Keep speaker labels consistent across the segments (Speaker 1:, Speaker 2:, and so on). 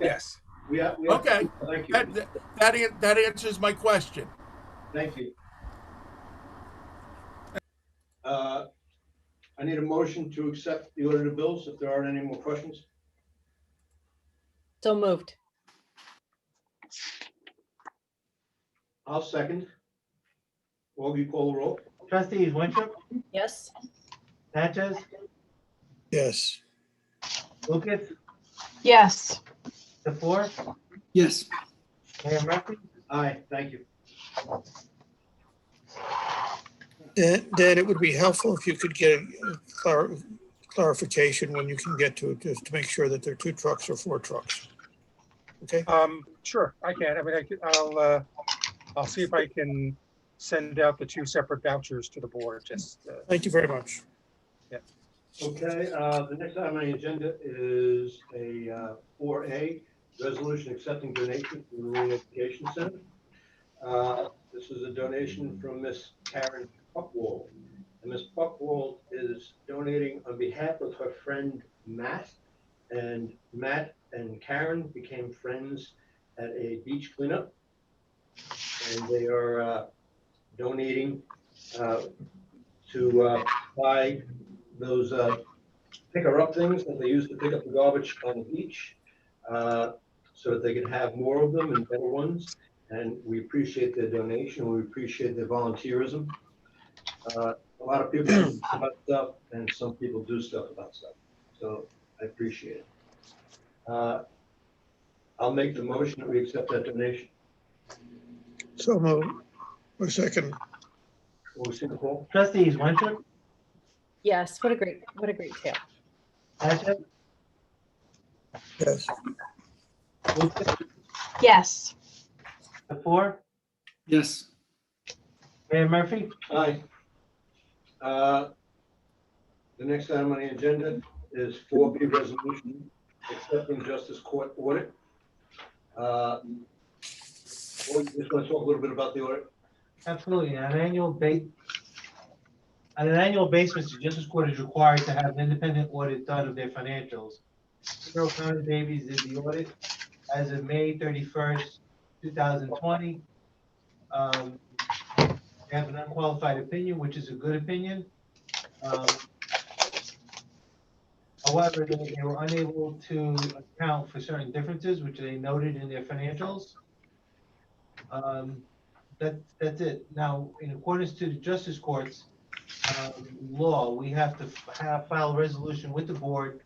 Speaker 1: Yes.
Speaker 2: We have, we have,
Speaker 3: Okay,
Speaker 2: thank you.
Speaker 3: that, that, that an- that answers my question.
Speaker 2: Thank you. Uh, I need a motion to accept the order of bills if there aren't any more questions.
Speaker 4: So moved.
Speaker 2: I'll second. Augie, call the roll.
Speaker 5: Trustees Winthrop,
Speaker 4: Yes.
Speaker 5: Natchez,
Speaker 6: Yes.
Speaker 5: Lucas,
Speaker 7: yes.
Speaker 5: the four,
Speaker 8: yes.
Speaker 5: Mayor Murphy.
Speaker 2: Aye, thank you.
Speaker 6: Dan, Dan, it would be helpful if you could get clar- clarification when you can get to it, just to make sure that there are two trucks or four trucks. Okay,
Speaker 1: Um, sure, I can. I mean, I could, I'll, uh, I'll see if I can send out the two separate vouchers to the board, just, uh,
Speaker 6: thank you very much.
Speaker 2: Okay, uh, the next item on the agenda is a uh, four A, resolution accepting donation from the Marine Education Center. Uh, This is a donation from Miss Karen Buckwall. And Miss Buckwall is donating on behalf of her friend Matt. And Matt and Karen became friends at a beach cleanup. And they are uh, donating uh, to uh, buy those uh, picker-up things that they use to pick up the garbage on the beach, uh, so that they can have more of them and better ones. And we appreciate their donation, we appreciate their volunteerism. Uh, A lot of people do about stuff, and some people do stuff about stuff, so I appreciate it. Uh, I'll make the motion that we accept that donation.
Speaker 6: So move, or second,
Speaker 2: Will we see the poll?
Speaker 5: Trustees Winthrop,
Speaker 4: Yes. What a great, what a great tale.
Speaker 5: Natchez,
Speaker 6: yes.
Speaker 5: Lucas,
Speaker 7: Yes.
Speaker 5: the four,
Speaker 8: Yes.
Speaker 5: Mayor Murphy.
Speaker 2: Aye. Uh, The next item on the agenda is four B resolution accepting justice court audit. Uh, well, Just want to talk a little bit about the audit.
Speaker 5: Absolutely, on an annual ba, on an annual basis, the Justice Court is required to have an independent audit done of their financials. Carroll County Davies did the audit as of May thirty-first, two thousand twenty. Um, they have an unqualified opinion, which is a good opinion. Um, However, they they were unable to account for certain differences, which they noted in their financials. Um, that, that's it. Now, in accordance to the Justice Court's uh, law, we have to f- have, file a resolution with the board,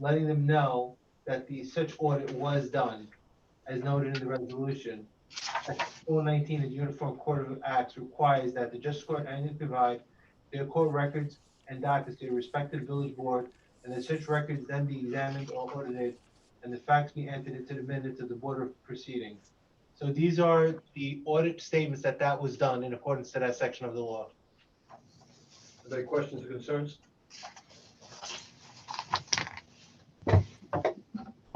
Speaker 5: letting them know that the such audit was done, as noted in the resolution. Rule nineteen of the Uniform Court of Acts requires that the Justice Court annually provide their court records and documents to the respective village board, and that such records then be examined or audited, and the facts be entered into the minutes of the board of proceedings. So these are the audit statements that that was done in accordance to that section of the law.
Speaker 2: Are there questions or concerns?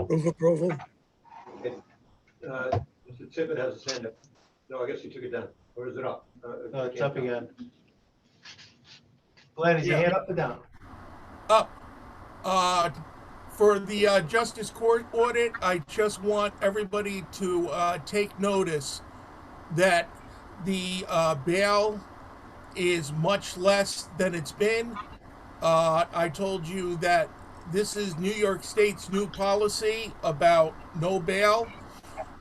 Speaker 6: Move approval,
Speaker 2: Uh, Mr. Tippett has his hand up. No, I guess he took it down. Or is it up? Uh,
Speaker 5: No, it's up again. Glenn, is your hand up or down?
Speaker 3: Uh, for the uh, Justice Court audit, I just want everybody to uh, take notice that the uh, bail is much less than it's been. Uh, I told you that this is New York State's new policy about no bail,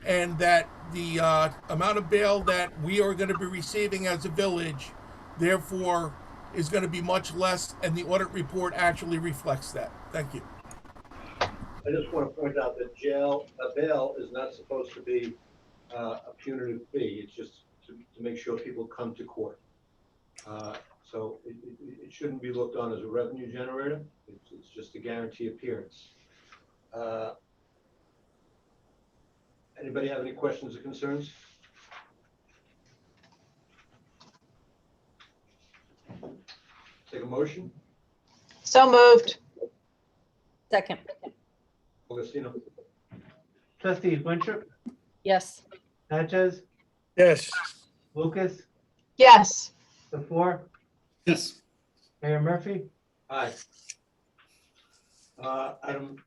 Speaker 3: and that the uh, amount of bail that we are going to be receiving as a village, therefore, is going to be much less, and the audit report actually reflects that. Thank you.
Speaker 2: I just want to point out that jail, a bail is not supposed to be uh, a punitive fee. It's just to, to make sure people come to court. Uh, So it, it, it shouldn't be looked on as a revenue generator. It's, it's just to guarantee appearance. Uh, Anybody have any questions or concerns? Take a motion,
Speaker 7: So moved.
Speaker 4: Second.
Speaker 2: Augustino.
Speaker 5: Trustees Winthrop,
Speaker 4: Yes.
Speaker 5: Natchez,
Speaker 6: yes.
Speaker 5: Lucas,
Speaker 7: Yes.
Speaker 5: the four,
Speaker 8: Yes.
Speaker 5: Mayor Murphy?
Speaker 2: Aye. Uh, Item